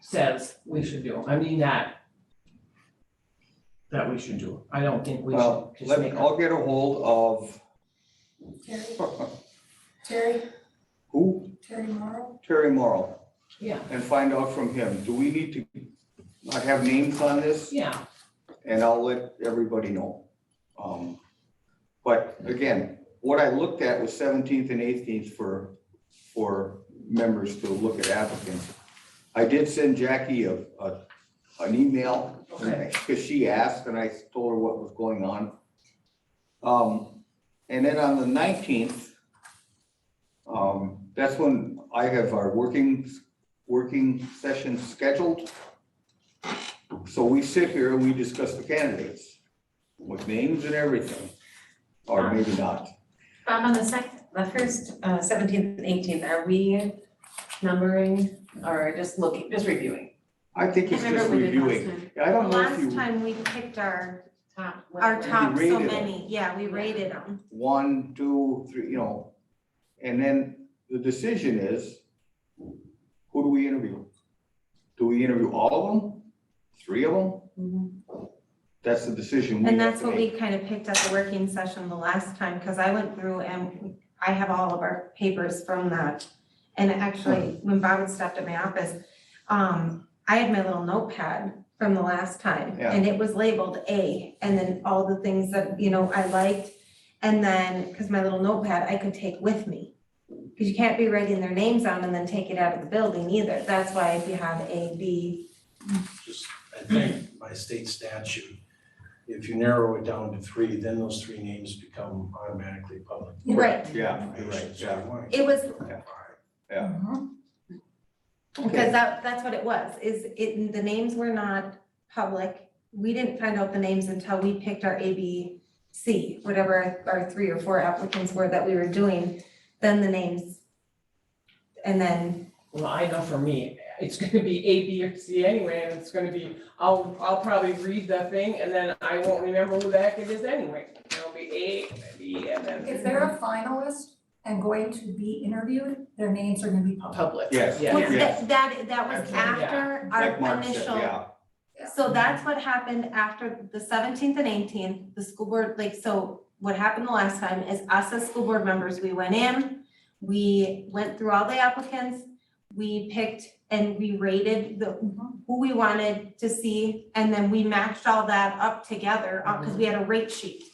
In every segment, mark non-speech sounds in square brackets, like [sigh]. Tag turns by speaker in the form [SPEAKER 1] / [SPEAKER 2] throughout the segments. [SPEAKER 1] says we should do. I mean that that we should do. I don't think we should
[SPEAKER 2] Well,
[SPEAKER 1] just
[SPEAKER 2] Uh, let me,
[SPEAKER 1] make up.
[SPEAKER 2] I'll get a hold
[SPEAKER 3] Terry,
[SPEAKER 2] of,
[SPEAKER 3] Terry,
[SPEAKER 2] [laughs] who,
[SPEAKER 3] Terry Morrow?
[SPEAKER 2] Terry Morrow,
[SPEAKER 1] Yeah,
[SPEAKER 2] and find out from him, do we need to, I have names on this,
[SPEAKER 1] yeah,
[SPEAKER 2] and I'll let everybody know. Um, But again, what I looked at was seventeenth and eighteenth for, for members to look at applicants. I did send Jackie a, a, an email
[SPEAKER 1] Okay.
[SPEAKER 2] because she asked and I told her what was going on. Um, and then on the nineteenth, um, that's when I have our working, working session scheduled. So we sit here and we discuss the candidates with names and everything, or maybe not.
[SPEAKER 4] Um, on the second, the first, uh, seventeenth and eighteenth, are we numbering or just looking, just reviewing?
[SPEAKER 2] I think it's
[SPEAKER 5] Can't
[SPEAKER 2] just
[SPEAKER 5] remember what we did last
[SPEAKER 2] reviewing.
[SPEAKER 5] time.
[SPEAKER 2] I don't know if
[SPEAKER 5] Last
[SPEAKER 2] you,
[SPEAKER 5] time we picked our,
[SPEAKER 4] Top,
[SPEAKER 5] our
[SPEAKER 4] whatever.
[SPEAKER 5] top so
[SPEAKER 2] rated 'em.
[SPEAKER 5] many, yeah, we rated them.
[SPEAKER 2] one, two, three, you know, and then the decision is, who do we interview? Do we interview all of them? Three of them?
[SPEAKER 4] Mhm.
[SPEAKER 2] That's the decision we
[SPEAKER 5] And
[SPEAKER 2] have
[SPEAKER 5] that's
[SPEAKER 2] to
[SPEAKER 5] what
[SPEAKER 2] make.
[SPEAKER 5] we kind of picked at the working session the last time, because I went through and I have all of our papers from that. And actually, when Bob had stopped at my office, um, I had my little notepad from the last time.
[SPEAKER 2] Yeah.
[SPEAKER 5] And it was labeled A, and then all the things that, you know, I liked. And then, because my little notepad, I could take with me. Because you can't be writing their names on and then take it out of the building either. That's why if you have A, B,
[SPEAKER 6] just, I think by state statute, if you narrow it down to three, then those three names become automatically public.
[SPEAKER 5] right.
[SPEAKER 2] Yeah, you're right,
[SPEAKER 6] So
[SPEAKER 2] yeah.
[SPEAKER 6] why-
[SPEAKER 5] It was, because
[SPEAKER 2] Okay.
[SPEAKER 5] that, that's what it was, is it, the names were not public. We didn't find out the names until we picked our A, B, C, whatever our three or four applicants were that we were doing, then the names. And then,
[SPEAKER 1] well, I know for me, it's [laughs] gonna be A, B, or C anyway, and it's gonna be, I'll, I'll probably read the thing and then I won't remember who the heck it is anyway. It'll be A, B, and
[SPEAKER 3] If
[SPEAKER 1] then
[SPEAKER 3] they're a finalist and going to be interviewed, their names are gonna be public.
[SPEAKER 1] public.
[SPEAKER 2] Yes.
[SPEAKER 1] Yeah.
[SPEAKER 5] well,
[SPEAKER 2] Yes.
[SPEAKER 5] that, that, that was
[SPEAKER 2] Absolutely.
[SPEAKER 5] after our
[SPEAKER 2] Like Mark said,
[SPEAKER 5] initial
[SPEAKER 2] yeah,
[SPEAKER 5] So that's what happened after the seventeenth and eighteenth, the school board, like, so what happened the last time is us as school board members, we went in, we went through all the applicants, we picked and we rated the, who we wanted to see, and then we matched all that up together, uh, cause we had a rate sheet.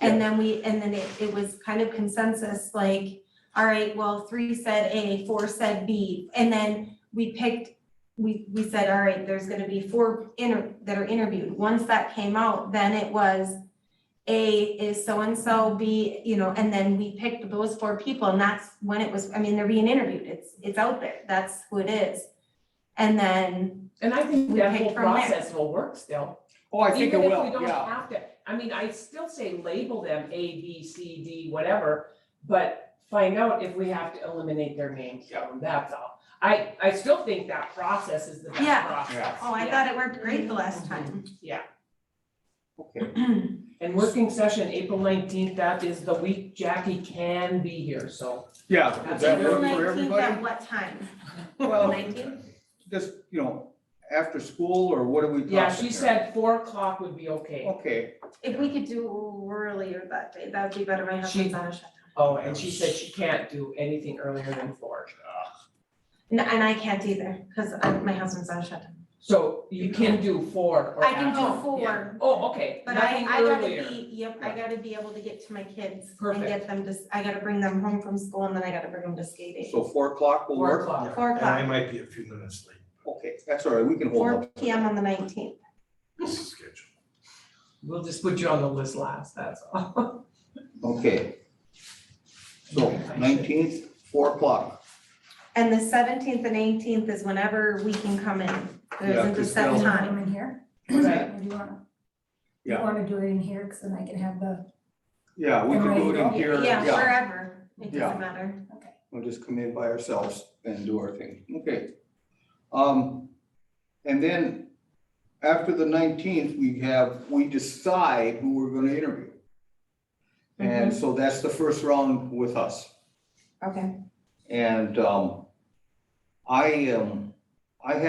[SPEAKER 5] And then we, and then it, it was kind of consensus, like, all right, well, three said A, four said B, and then we picked we, we said, all right, there's gonna be four inter, that are interviewed. Once that came out, then it was A is so-and-so, B, you know, and then we picked those four people and that's when it was, I mean, they're being interviewed. It's, it's out there. That's who it is. And then,
[SPEAKER 1] And I think
[SPEAKER 5] We
[SPEAKER 1] that
[SPEAKER 5] pick
[SPEAKER 1] whole
[SPEAKER 5] from there.
[SPEAKER 1] process will work still.
[SPEAKER 2] oh, I think it
[SPEAKER 1] Even if we
[SPEAKER 2] will,
[SPEAKER 1] don't
[SPEAKER 2] yeah,
[SPEAKER 1] have to, I mean, I still say label them A, B, C, D, whatever, but find out if we have to eliminate their names, so that's all. I, I still think that process is the best
[SPEAKER 5] Yeah.
[SPEAKER 1] process.
[SPEAKER 5] oh, I thought it worked great the last time. [clears throat]
[SPEAKER 2] okay,
[SPEAKER 1] And working session, April nineteenth, that is the week Jackie can be here, so.
[SPEAKER 2] yeah, does
[SPEAKER 1] That's
[SPEAKER 2] that
[SPEAKER 1] April
[SPEAKER 2] work for
[SPEAKER 5] April 19th at
[SPEAKER 2] everybody?
[SPEAKER 5] what time?
[SPEAKER 2] Well,
[SPEAKER 5] Nineteen?
[SPEAKER 2] just, you know, after school, or what are we talking
[SPEAKER 1] Yeah, she
[SPEAKER 2] here?
[SPEAKER 1] said four o'clock would be okay.
[SPEAKER 2] Okay,
[SPEAKER 5] If we could do earlier that day, that would be better. My husband's on a shutdown.
[SPEAKER 1] Oh, and she said she can't do anything earlier than four.
[SPEAKER 5] And, and I can't either, cause I- my husband's on a shutdown.
[SPEAKER 1] So you can do four or
[SPEAKER 5] I can do
[SPEAKER 1] after.
[SPEAKER 5] four.
[SPEAKER 1] Oh, okay,
[SPEAKER 5] But I,
[SPEAKER 1] nothing
[SPEAKER 5] I gotta
[SPEAKER 1] earlier.
[SPEAKER 5] be, yep, I gotta be able to get to my kids and
[SPEAKER 1] Perfect.
[SPEAKER 5] get them to, s- I gotta bring them home from school and then I gotta bring them to skating.
[SPEAKER 2] so four o'clock will
[SPEAKER 1] Four
[SPEAKER 2] work?
[SPEAKER 1] o'clock.
[SPEAKER 6] Yeah,
[SPEAKER 5] Four
[SPEAKER 6] And I
[SPEAKER 5] o'clock.
[SPEAKER 6] might be a few minutes late,
[SPEAKER 2] Okay, that's all right, we can hold
[SPEAKER 5] Four
[SPEAKER 2] up.
[SPEAKER 5] P M on the nineteenth.
[SPEAKER 6] this is scheduled.
[SPEAKER 1] We'll just put you on the list last, that's all.
[SPEAKER 2] Okay. So nineteenth, four o'clock.
[SPEAKER 5] And the seventeenth and eighteenth is whenever we can come in. There
[SPEAKER 2] Yeah,
[SPEAKER 5] isn't a
[SPEAKER 2] because
[SPEAKER 5] set
[SPEAKER 2] they'll-
[SPEAKER 5] time.
[SPEAKER 3] in here.
[SPEAKER 1] Right.
[SPEAKER 3] Or do you wanna?
[SPEAKER 2] Yeah.
[SPEAKER 3] You wanna do it in here, cause then I can have the,
[SPEAKER 2] Yeah, we can do it in here,
[SPEAKER 5] Yeah,
[SPEAKER 2] yeah,
[SPEAKER 5] wherever. It
[SPEAKER 2] Yeah.
[SPEAKER 5] doesn't matter.
[SPEAKER 2] we'll just come in by ourselves and do our thing, okay. Um, and then after the nineteenth, we have, we decide who we're gonna interview. And
[SPEAKER 5] Mm-hmm.
[SPEAKER 2] so that's the first round with us.
[SPEAKER 5] Okay.
[SPEAKER 2] And, um, I, um, I have